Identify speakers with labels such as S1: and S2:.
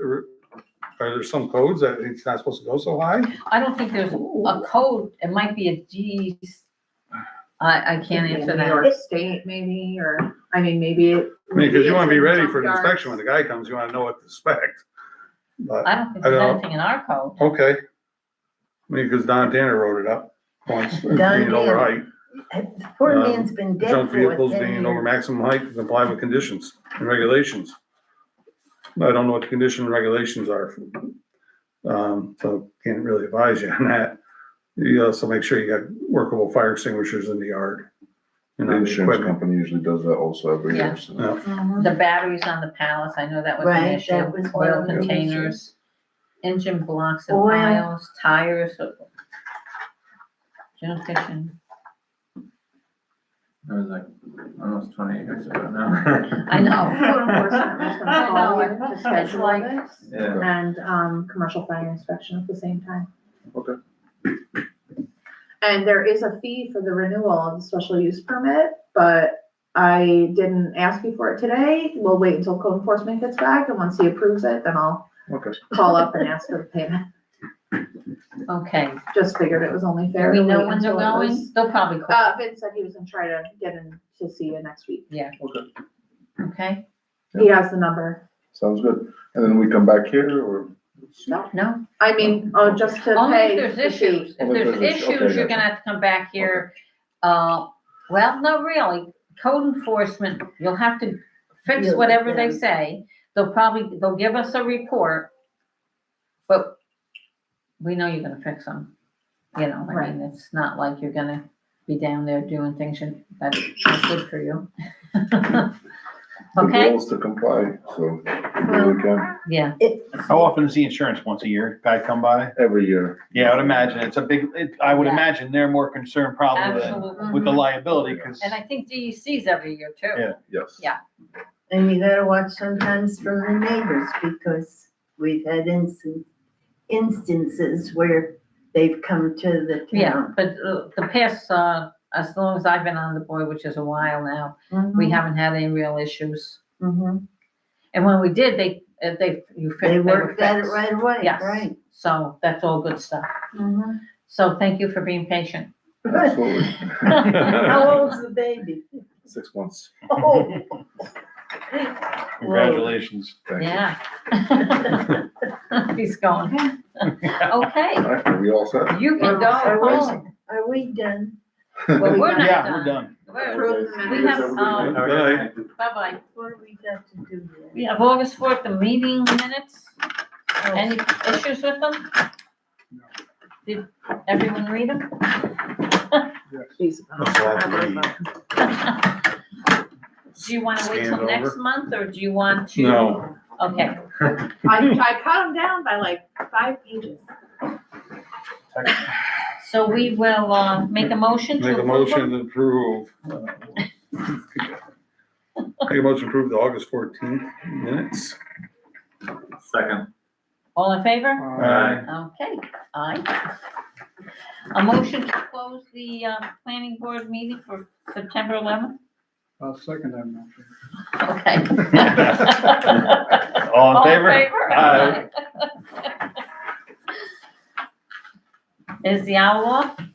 S1: or are there some codes that it's not supposed to go so high?
S2: I don't think there's a code, it might be a G's. I, I can't answer
S3: New
S2: that.
S3: York State maybe, or, I mean, maybe. it
S1: I mean, because you want to be
S3: would
S1: ready for the
S3: junkyards.
S1: inspection when the guy comes, you want to know what to expect. But,
S2: I don't think
S1: I
S2: there's
S1: don't-
S2: anything in our code.
S1: okay. I mean, because Don Tanner wrote it up once, being over height.
S4: Poor
S1: Um,
S4: man's been dead
S1: Junk
S4: for
S1: vehicles
S4: what, ten
S1: being over
S4: years?
S1: maximum height comply with conditions and regulations. I don't know what the condition and regulations are. Um, so can't really advise you on that. You also make sure you got workable fire extinguishers in the yard. And
S5: The
S1: on the
S5: insurance
S1: equipment.
S5: company usually does that also every
S2: Yeah.
S5: year, so.
S4: Mhm.
S2: The batteries on the palace, I know that was an
S4: Right,
S2: issue.
S4: that was one
S2: Oil
S4: of the issues.
S2: containers, engine blocks and
S4: Oil.
S2: piles, tires. uh, General fiction.
S6: It was like almost twenty years ago now.
S2: I know.
S3: Code enforcement was gonna
S2: I
S3: call
S2: know,
S3: you, just
S2: that's
S3: schedule
S2: like-
S3: it,
S6: Yeah,
S3: And, um, commercial fire inspection at the same time.
S5: Okay.
S3: And there is a fee for the renewal of the special use permit, but I didn't ask you for it today. We'll wait until code enforcement gets back, and once he approves it, then I'll
S5: Okay.
S3: call up and ask for the payment.
S2: Okay,
S3: Just figured it was only
S2: do
S3: fair.
S2: we
S3: to
S2: know
S3: wait
S2: when they're
S3: until it was-
S2: going? They'll probably call,
S3: Uh, Vince said he was gonna try to get in to see you next week.
S4: Uh,
S2: okay?
S3: He has the number.
S5: Sounds good. And then we come back here or?
S2: No,
S3: I mean, oh, just to pay.
S2: only if
S3: the
S2: there's
S3: fee.
S2: issues. If
S5: Only if
S2: there's
S5: there's issues. Okay,
S2: issues, you're gonna
S5: gotcha.
S2: have to come back here. Uh, well, no, really, code enforcement, you'll have to fix
S4: Yeah,
S2: whatever they
S4: yeah.
S2: say. They'll probably, they'll give us a report. But we know you're gonna fix them. You know, I
S3: Right.
S2: mean, it's not like you're gonna be down there doing things you- that's not good for you.
S5: The
S2: Okay,
S5: goal is to comply, so we really can,
S2: yeah,
S7: How often is the insurance? Once a year, guy come by?
S5: every year.
S7: Yeah, I would imagine. It's a big, it, I would
S2: Yeah.
S7: imagine they're more concerned probably than
S2: absolutely.
S7: with the liability, because
S2: And I think DEC's every year too.
S7: Yeah.
S5: Yes.
S2: Yeah.
S4: And you gotta watch sometimes from the neighbors because we've had instan- instances where they've come to the
S2: Yeah,
S4: town.
S2: but uh, the past, uh, as long as I've been on the board, which is a while now,
S4: Mm-hmm.
S2: we haven't had any real issues.
S4: Mhm.
S2: And when we did, they, uh, they, you fixed,
S4: They
S2: they were
S4: worked at it
S2: fixed.
S4: right away,
S2: Yes.
S4: right?
S2: So that's all good stuff.
S4: Mhm.
S2: So thank you for being patient.
S5: Absolutely.
S4: Mm-hmm. How old's the baby?
S5: Six months.
S4: Oh,
S7: congratulations.
S5: Thank you.
S2: Yeah. He's going. Okay,
S5: All right, are we all set?
S2: you can go
S4: Are we-
S2: home.
S4: Are we done?
S2: Well, we're not
S7: Yeah,
S2: done.
S7: we're done.
S2: We're-
S5: Okay.
S2: We have, um,
S1: Bye.
S2: Bye-bye.
S4: What do we got to do
S2: We
S4: then?
S2: have August fourth, the meeting minutes.
S4: Oh,
S2: Any issues with them? Did everyone read them?
S3: uh,
S1: That's a lot to read.
S2: Do you wanna wait
S1: Scanned
S2: till next
S1: over.
S2: month, or do you want to?
S1: No,
S2: Okay,
S3: I, I cut them down by like five pages.
S2: so we will, uh, make a motion to.
S1: make a
S2: approve them?
S1: motion to approve. uh, Make a motion to approve the August fourteenth minutes.
S6: Second.
S2: All in favor?
S1: Aye.
S2: Okay, aye. A motion to close the, uh, planning board meeting for September eleventh?
S8: I'll second that motion.
S2: Okay.
S7: All in favor?
S2: Aye. Is the owl off?